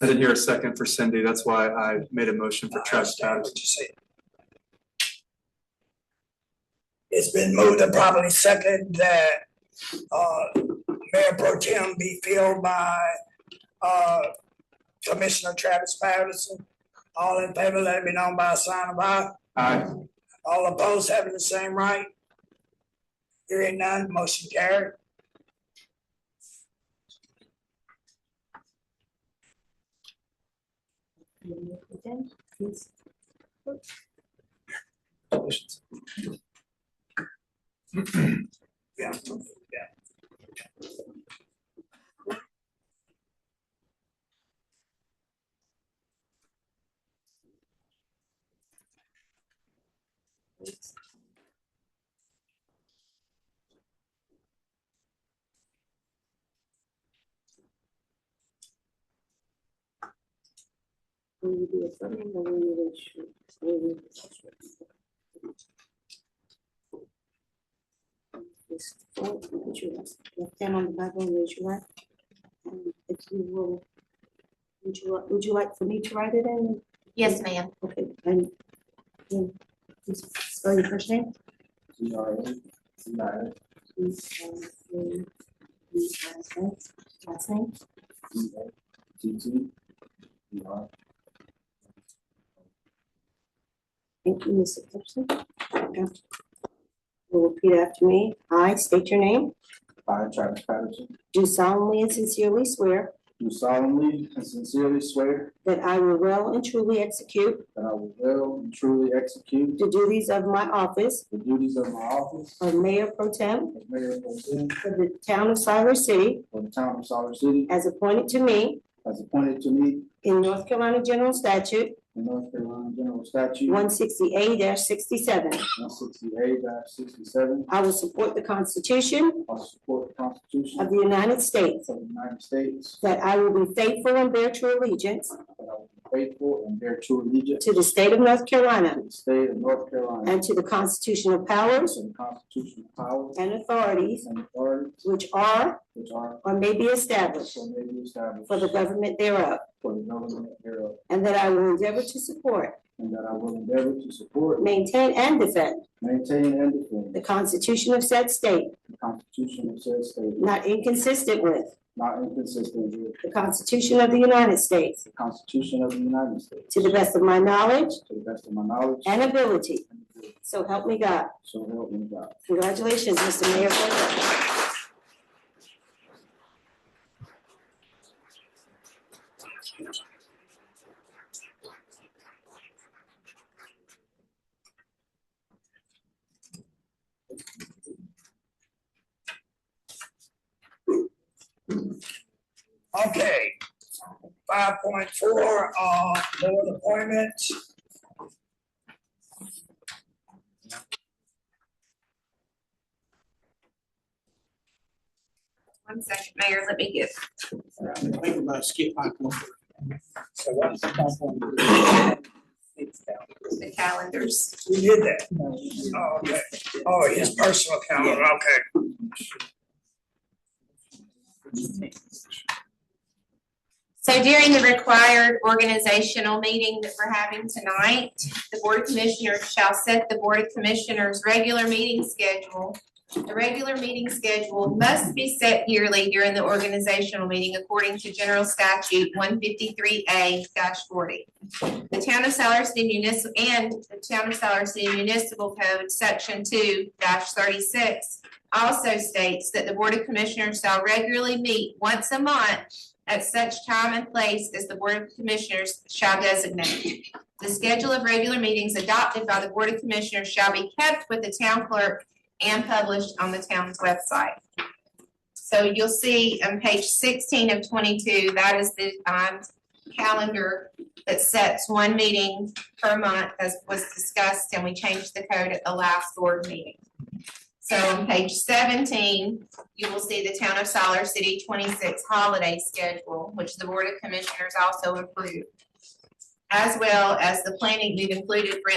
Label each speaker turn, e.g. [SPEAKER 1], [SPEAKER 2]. [SPEAKER 1] I didn't hear a second for Cindy, that's why I made a motion for Travis Patterson.
[SPEAKER 2] It's been moved and properly second that uh Mayor Pro Tem be filled by uh Commissioner Travis Patterson. All in favor, let it be known by a sign of aye.
[SPEAKER 1] Aye.
[SPEAKER 2] All opposed having the same right? Hearing none, motion carried.
[SPEAKER 3] Again, please.
[SPEAKER 2] Yeah.
[SPEAKER 3] Will you do a summary or will you wait shoot? Will you- This four, put your left hand on the Bible and raise your right. And if you will, would you, li- would you like for me to write it in?
[SPEAKER 4] Yes, ma'am.
[SPEAKER 3] Okay, and, and please spell your first name. Please, um, um, please, uh, spell Last name. Thank you, Mrs. Gibson. Okay. Will repeat after me. I state your name,
[SPEAKER 5] I, Travis Patterson,
[SPEAKER 3] do solemnly and sincerely swear
[SPEAKER 5] do solemnly and sincerely swear
[SPEAKER 3] that I will well and truly execute
[SPEAKER 5] that I will well and truly execute
[SPEAKER 3] the duties of my office
[SPEAKER 5] the duties of my office
[SPEAKER 3] of Mayor Pro Tem
[SPEAKER 5] as mayor pro tem
[SPEAKER 3] for the town of Siler City
[SPEAKER 5] for the town of Silver City
[SPEAKER 3] as appointed to me
[SPEAKER 5] as appointed to me
[SPEAKER 3] in North Carolina General Statute
[SPEAKER 5] in North Carolina General Statute
[SPEAKER 3] one sixty-eight sixty-seven.
[SPEAKER 5] one sixty-eight sixty-seven.
[SPEAKER 3] I will support the Constitution
[SPEAKER 5] I will support the Constitution
[SPEAKER 3] of
[SPEAKER 5] of
[SPEAKER 3] the United States,
[SPEAKER 5] the United States,
[SPEAKER 3] that I will be faithful and bear true allegiance
[SPEAKER 5] that I will be faithful and bear true allegiance
[SPEAKER 3] to the state of North Carolina
[SPEAKER 5] to the state of North Carolina
[SPEAKER 3] and to the constitutional powers
[SPEAKER 5] and the constitutional powers
[SPEAKER 3] and authorities
[SPEAKER 5] and authorities
[SPEAKER 3] which are
[SPEAKER 5] which are
[SPEAKER 3] or may be established
[SPEAKER 5] or may be established
[SPEAKER 3] for the government thereof,
[SPEAKER 5] for the government thereof
[SPEAKER 3] and that I will endeavor to support,
[SPEAKER 5] And that I will endeavor to support,
[SPEAKER 3] maintain, and defend
[SPEAKER 5] maintain, and defend
[SPEAKER 3] the Constitution of said state,
[SPEAKER 5] the Constitution of said state,
[SPEAKER 3] not inconsistent with
[SPEAKER 5] not inconsistent with
[SPEAKER 3] the Constitution of the United States,
[SPEAKER 5] the Constitution of the United States,
[SPEAKER 3] to the best of my knowledge
[SPEAKER 5] to the best of my knowledge.
[SPEAKER 3] and ability. So help me God.
[SPEAKER 5] So help me God.
[SPEAKER 3] Congratulations, Mr. Mayor. Pro Tem.
[SPEAKER 2] Okay. Five point four, uh, board appointments.
[SPEAKER 4] One second, Mayor, let me get.
[SPEAKER 2] So what's the top one?
[SPEAKER 4] The calendars.
[SPEAKER 2] We did that? Oh, okay. Oh, his personal calendar, okay.
[SPEAKER 4] So during the required organizational meeting that we're having tonight, the Board of Commissioners shall set the Board of Commissioners' regular meeting schedule. The regular meeting schedule must be set yearly during the organizational meeting according to General Statute one fifty-three A forty. The Town of Siler City Municipal, and the Town of Siler City Municipal Code, Section two thirty-six also states that the Board of Commissioners shall regularly meet once a month at such time and place as the Board of Commissioners shall designate. The schedule of regular meetings adopted by the Board of Commissioners shall be kept with the town clerk and published on the town's website. So you'll see on page sixteen of twenty-two, that is the um, calendar that sets one meeting per month as was discussed, and we changed the code at the last board meeting. So on page seventeen, you will see the Town of Siler City twenty-six holiday schedule, which the Board of Commissioners also approved. As well as the planning we've included for